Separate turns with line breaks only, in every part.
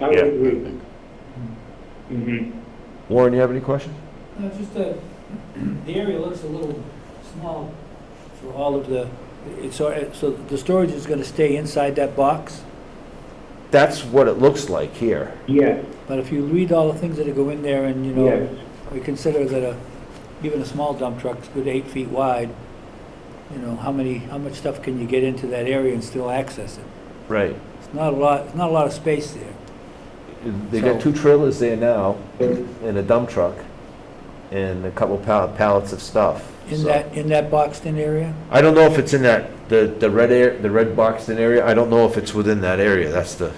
I would
Yeah.
agree. Mhm.
Warren, you have any questions?
No, it's just uh the area looks a little small for all of the, it's, so so the storage is gonna stay inside that box?
That's what it looks like here.
Yes,
But if you read all the things that go in there and, you know,
yes.
we consider that a, even a small dump truck's good eight feet wide, you know, how many, how much stuff can you get into that area and still access it?
Right.
It's not a lot, it's not a lot of space there.
They got two
So-
trailers there now
So,
and a dump truck and a couple pal- pallets of stuff.
In
so-
that, in that boxed-in area?
I don't know if it's in that, the, the red air, the red boxed in area. I don't know if it's within that area. That's the,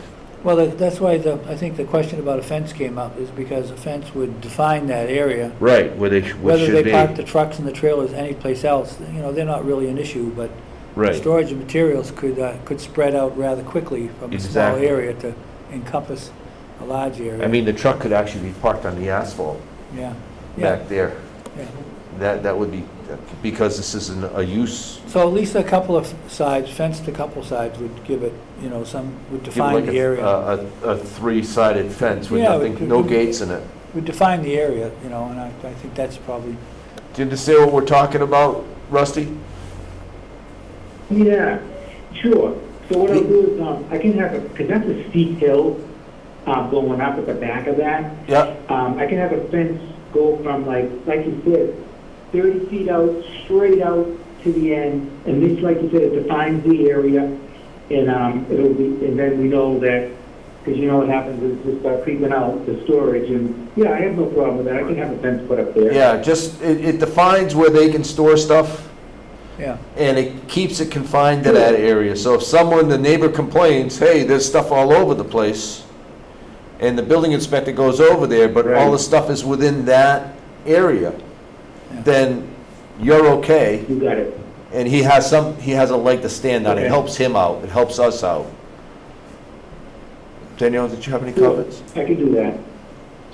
Well, that- that's why the, I think the question about a fence came up, is because a fence would define that area.
right, where they, sh- where
Whether
should
they
be.
park the trucks and the trailers anyplace else, you know, they're not really an issue, but
Right,
storage of materials could, uh, could spread out rather quickly from a small
Exactly.
area to encompass a large area.
I mean, the truck could actually be parked on the asphalt
Yeah, yeah,
back there.
yeah.
That, that would be, because this isn't a use,
So at least a couple of sides, fenced a couple sids would give it, you know, some, would
give it
define
like
the
a, uh,
area.
a, a three-sided fence with
Yeah,
nothing,
but-
no gates in it.
Would define the area, you know, and I, I think that's probably,
Do you understand what we're talking about, Rusty?
Yeah, sure. So what I'll do is, um, I can have a, because that's a steep hill, uh, going up at the back of that.
Yeah,
Um, I can have a fence go from like, like you said, thirty feet out, straight out to the end, and this, like you said, it defines the area, and, um, it'll be, and then we know that, because you know what happens is just by creeping out the storage, and, yeah, I have no problem with that, I can have a fence put up there.
yeah, just, it, it defines where they can store stuff.
yeah.
and it keeps it confined to that area. So if someone, the neighbor complains, hey, there's stuff all over the place, and the building inspector goes over there, but all the
Right.
stuff is within that area,
Yeah.
then you're okay,
You got it.
and he has some, he has a leg to stand on. It
Okay.
helps him out, it helps us out. Danielle, did you have any comments?
I can do that.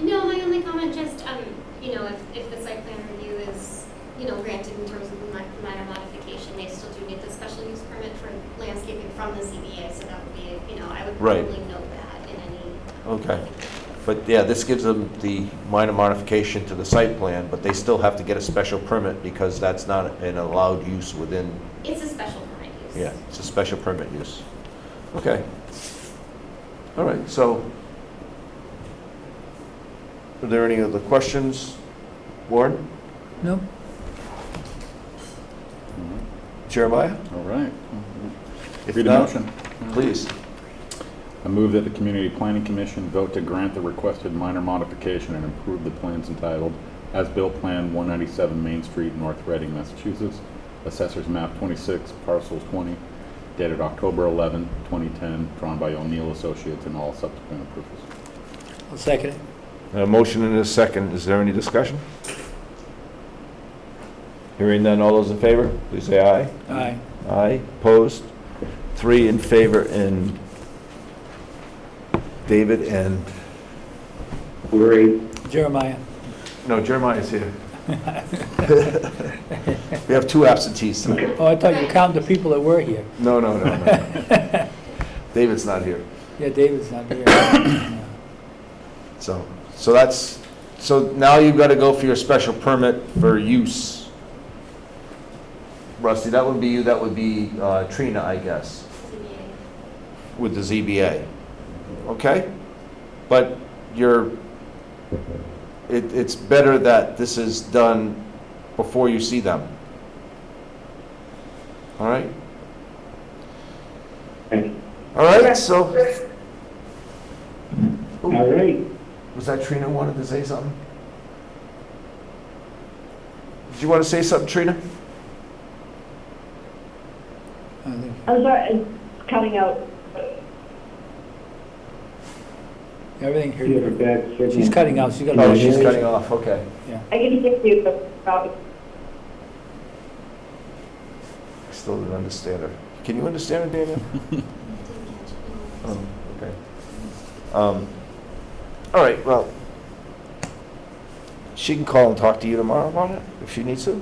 No, my only comment, just, um, you know, if, if the site plan review is, you know, granted in terms of mi- minor modification, they still do need the special use permit for landscaping from the ZBA, so that would be, you know, I would
Right.
probably note that in any.
Okay. But yeah, this gives them the minor modification to the site plan, but they still have to get a special permit because that's not an allowed use within
It's a special permit use.
Yeah, it's a special permit use. Okay. All right, so are there any other questions? Warren,
No?
Jeremiah?
All right.
If
Read a
not,
motion.
Please.
I move that the Community Planning Commission vote to grant the requested minor modification and approve the plans entitled As-Built Plan 197 Main Street, North Reading, Massachusetts, Assessors Map 26, Parcels 20, dated October 11, 2010, drawn by O'Neill Associates and all subsequent approvals.
I'll second it.
A motion and a second. Is there any discussion? Hearing none, all those in favor, please say aye.
Aye.
Aye, opposed? Three in favor and David and...
Great.
Jeremiah?
No, Jeremiah's here. We have two absentees tonight.
Oh, I thought you counted the people that were here.
No, no, no, no. David's not here.
Yeah, David's not here. Yeah.
So, so that's, so now you've got to go for your special permit for use. Rusty, that would be you, that would be uh, Trina, I guess,
ZBA.
with the ZBA. Okay? But you're, it, it's better that this is done before you see them. All right?
Okay.
All right, so,
All right.
was that Trina wanted to say something? Did you want to say something, Trina?
I think-
I'm sorry, it's cutting out.
Everything
You have a
here,
bad signal.
she's cutting out, she's got
Oh,
a...
she's cutting off, okay.
I can hear you, but uh, probably
I Still didn't understand her. Can you understand her, Daniel?
Didn't catch it.
Oh, okay. Um, All right, well, she can call and talk to you tomorrow about it, if she needs to?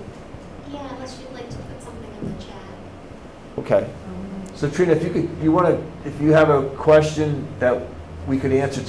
Yeah, unless you'd like to put something in the chat.
Okay. So Trina, if you could, you want to, if you have a question that we could answer